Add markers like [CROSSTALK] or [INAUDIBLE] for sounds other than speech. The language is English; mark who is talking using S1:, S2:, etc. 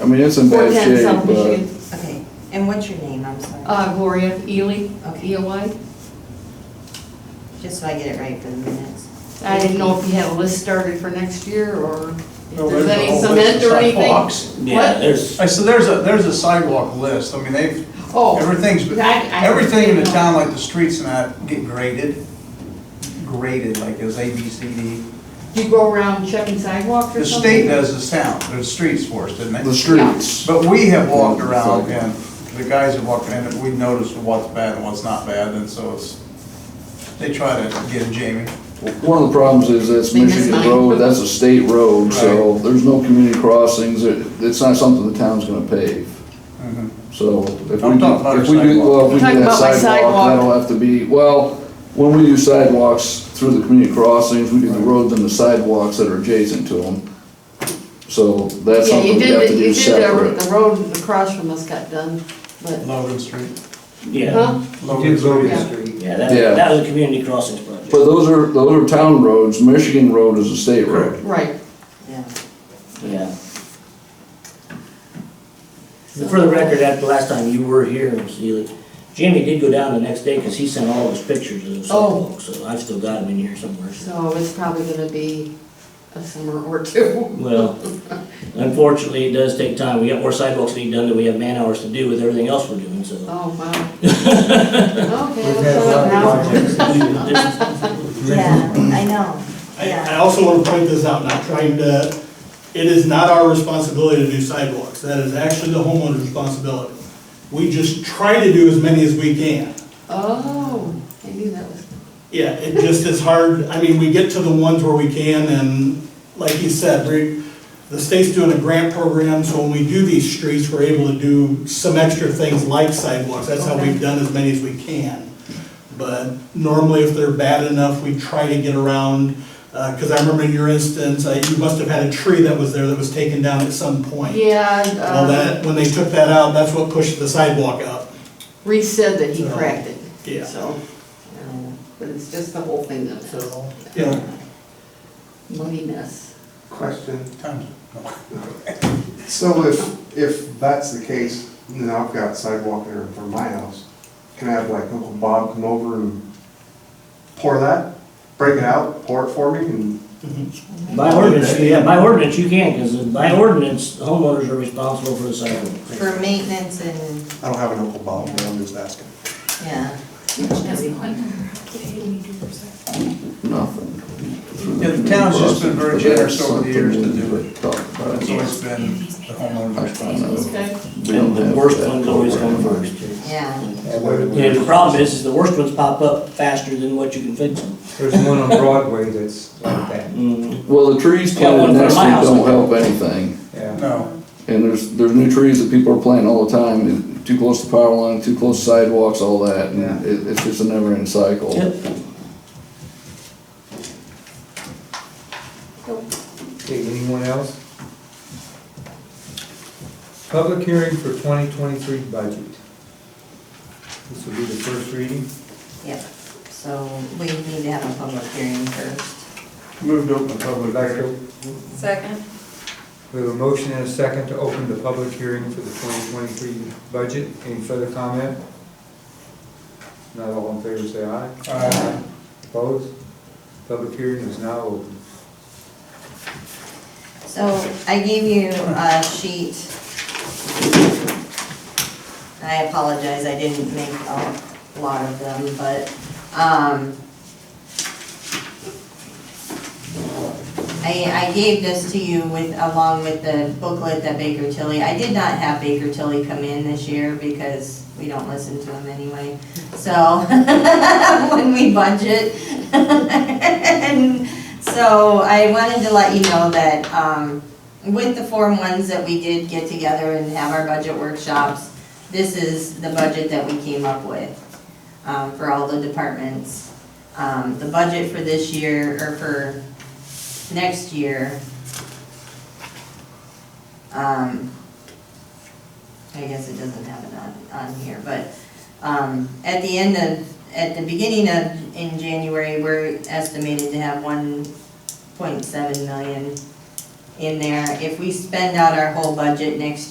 S1: I mean, it's in bad
S2: 410
S1: shape,
S2: South Michigan.
S1: but
S3: Okay, and what's your name, I'm sorry?
S2: Uh, Gloria Ely,
S3: Okay.
S2: E-O-Y.
S3: Just so I get it right for the minutes.
S2: I didn't know if you had a list started for next year or if
S4: No,
S2: there's
S4: there's a
S2: any
S4: whole
S2: cement
S4: list of
S2: or anything.
S4: sidewalks.
S5: Yeah,
S2: What?
S5: there's,
S4: I said, there's a, there's a sidewalk list, I mean, they've,
S2: Oh,
S4: everything's,
S2: I- I-
S4: everything in the town, like the streets and that, get graded, graded, like as A, B, C, D.
S2: you go around checking sidewalks or
S4: The
S2: something?
S4: state does this town, there's streets for us, didn't
S1: the
S4: they?
S1: streets.
S4: But we have walked around, and the guys have walked around, and we noticed what's bad and what's not bad, and so it's, they try to get Jamie.
S1: One of the problems is that's
S2: They missed
S1: Michigan
S2: mine.
S1: Road, that's a state road, so there's no community crossings, it, it's not something the town's gonna pave.
S4: Mhm.
S1: So if we
S4: I'm talking
S1: do,
S4: about
S1: if
S4: our
S1: we do,
S4: sidewalk.
S1: well, if we
S2: You're
S1: do
S2: talking
S1: that
S2: about my
S1: sidewalk,
S2: sidewalk.
S1: that'll have to be, well, when we do sidewalks through the community crossings, we do the roads and the sidewalks that are adjacent to them. So that's
S2: Yeah, you
S1: something we
S2: did,
S1: have to
S2: the- you
S1: do
S2: did the-
S1: separate.
S2: the road across from us got done, but,
S4: Logan Street.
S5: yeah,
S2: huh?
S4: Logan Street.
S2: Yeah.
S5: yeah, that,
S1: Yeah.
S5: that was a community crossings project.
S1: But those are, those are town roads, Michigan Road is a state road.
S2: Right.
S3: Yeah.
S5: Yeah. And For the record, after last time you were here, Ms. Ely, Jamie did go down the next day because he sent all those pictures of the
S2: Oh.
S5: sidewalk, so I've still got them in here somewhere.
S2: So it's probably gonna be a summer or two. [LAUGHS]
S1: [LAUGHS]
S5: Well, unfortunately, it does take time. We got more sidewalks to be done than we have man hours to do with everything else we're doing, so. [LAUGHS]
S2: Oh, wow. Okay, let's go now.
S3: Yeah, I know,
S6: I, I
S3: yeah.
S6: also want to point this out, not trying to, it is not our responsibility to do sidewalks. That is actually the homeowner's responsibility. We just try to do as many as we can.
S2: Oh, I knew that was,
S6: Yeah, it just is hard, I mean, we get to the ones where we can, and like you said, we, the state's doing a grant program, so when we do these streets, we're able to do some extra things like sidewalks, that's how we've done as many as we can. But normally, if they're bad enough, we try to get around, Uh 'cause because I remember in your instance, uh, you must have had a tree that was there that was taken down at some point.
S2: yeah,
S6: Well,
S2: uh,
S6: that, when they took that out, that's what pushed the sidewalk up.
S2: Reese said that he
S6: So,
S2: cracked it.
S6: yeah.
S2: So, uh, but it's just the whole thing that's a
S6: Yeah.
S2: money mess.
S7: Question.
S4: Times-
S7: So if, if that's the case, then I've got sidewalk there in front of my house. Can I have like Uncle Bob come over and pour that? Break it out, pour it for me and,
S5: By ordinance, yeah, by ordinance, you can, because by ordinance, homeowners are responsible for the sidewalks.
S3: For maintenance and,
S7: I don't have an Uncle Bob, but I'm just asking.
S3: yeah.
S1: Nothing. through
S4: Yeah, the
S1: community
S4: town's just
S1: crossings,
S4: been very
S1: but
S4: generous
S1: that's
S4: over the years to
S1: something
S4: do
S1: we
S4: it.
S1: talked about.
S4: It's always been the homeowner's responsibility.
S2: Okay.
S1: We don't
S5: And the
S1: have
S5: worst
S1: that
S5: ones always come
S1: program.
S5: first.
S3: Yeah.
S5: Yeah, the problem is, is the worst ones pop up faster than what you can fix them.
S8: There's one on Broadway that's like that,
S5: Mm,
S1: Well, the trees
S5: Yeah, one
S1: planted next
S5: for
S1: week
S5: my house.
S1: don't help anything.
S8: yeah.
S4: No,
S1: And there's, there's new trees that people are planting all the time, and too close to power line, too close to sidewalks, all that, and it, it's just a never-ending cycle.
S5: Yep.
S8: Okay, anyone else? Public hearing for 2023 budget. This will be the first reading.
S3: Yep, so we need to have a public hearing first.
S4: moved open the
S8: Would
S4: public
S8: like
S4: hearing.
S8: to,
S3: Second.
S8: we have a motion and a second to open the public hearing for the 2023 budget. Any further comment? Not all in favor, say aye.
S4: Aye.
S8: Opposed? Public hearing is now open.
S3: So I gave you a sheet. I apologize, I didn't make a lot of them, but, um, I, I gave this to you with, along with the booklet that Baker Tilly, I did not have Baker Tilly come in this year because we don't listen to him anyway. So, [LAUGHS] when we budget. [LAUGHS] And so I wanted to let you know that, um, with the Form Ones that we did get together and have our budget workshops, this is the budget that we came up with, um, for all the departments. Um, the budget for this year, or for next year, um, I guess it doesn't have it on, on here, but, um, at the end of, at the beginning of, in January, we're estimated to have one point seven million in there. If we spend out our whole budget next